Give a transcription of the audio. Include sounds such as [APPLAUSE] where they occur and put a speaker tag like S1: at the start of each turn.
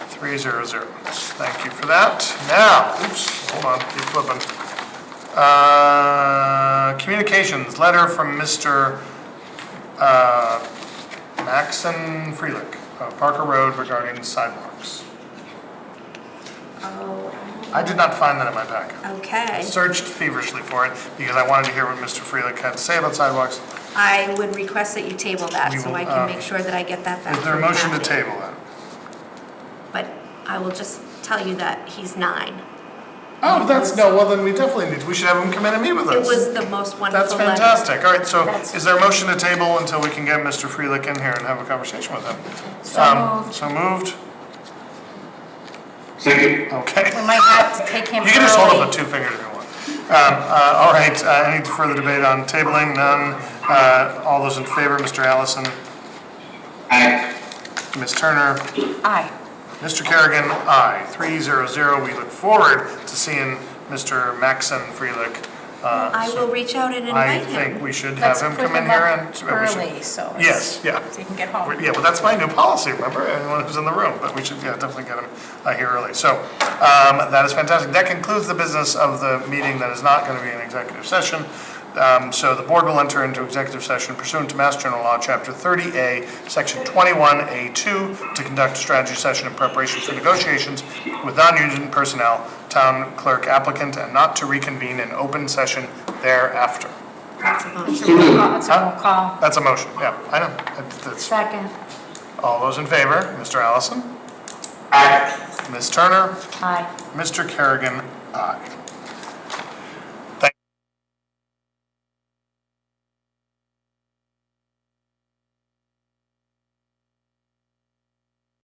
S1: three zero zero. Thank you for that. Now, oops, hold on, keep flipping. Uh, Communications, letter from Mr. uh, Maxon Freelick of Parker Road regarding sidewalks.
S2: Oh,
S1: I did not find that in my packet. I
S2: okay.
S1: searched feverishly for it because I wanted to hear what Mr. Freelick had to say about sidewalks.
S2: I would request that you table that
S1: We
S2: so
S1: will,
S2: I
S1: uh,
S2: can make sure that I get that back.
S1: Is there a
S2: from
S1: motion to
S2: Kathy.
S1: table that?
S2: But I will just tell you that he's nine.
S1: Oh, that's, no, well, then we definitely need, we should have him come in and meet with us.
S2: It was the most
S1: That's
S2: wonderful letter.
S1: fantastic. All right, so
S3: That's-
S1: is there a motion to table until we can get Mr. Freelick in here and have a conversation with him?
S3: So
S1: Um,
S3: moved.
S1: So moved?
S4: Second.
S1: Okay.
S3: We might have to take him
S1: [LAUGHS] You can just hold up
S3: early.
S1: with two fingers if you want. Um, uh, All right, uh, any further debate on tabling? None. Uh, All those in favor, Mr. Allison,
S4: Aye.
S1: Ms. Turner,
S3: Aye.
S1: Mr. Kerrigan, aye. Three zero zero. We look forward to seeing Mr. Maxon Freelick. uh,
S2: I will reach out and
S1: I
S2: invite him.
S1: think we should have
S3: Let's
S1: him
S3: put
S1: come in
S3: him
S1: here and. uh,
S3: up
S1: we should-
S3: early, so. it's-
S1: Yes, yeah.
S3: So you can get home.
S1: Yeah, well, that's my new policy, remember, anyone who's in the room, but we should, yeah, definitely get them uh, here early. So um, that is fantastic. That concludes the business of the meeting that is not going to be an executive session. Um, So the board will enter into executive session pursuant to Mass General Law, Chapter 30A, Section 21A2, to conduct a strategy session in preparation for negotiations with non-union personnel, town clerk applicant, and not to reconvene in open session thereafter.
S3: That's a that's a roll call, that's a roll call.
S1: That's a motion, yeah, I know. That's- that's-
S3: Second.
S1: All those in favor, Mr. Allison?
S4: Aye.
S1: Ms. Turner,
S3: Aye.
S1: Mr. Kerrigan, aye.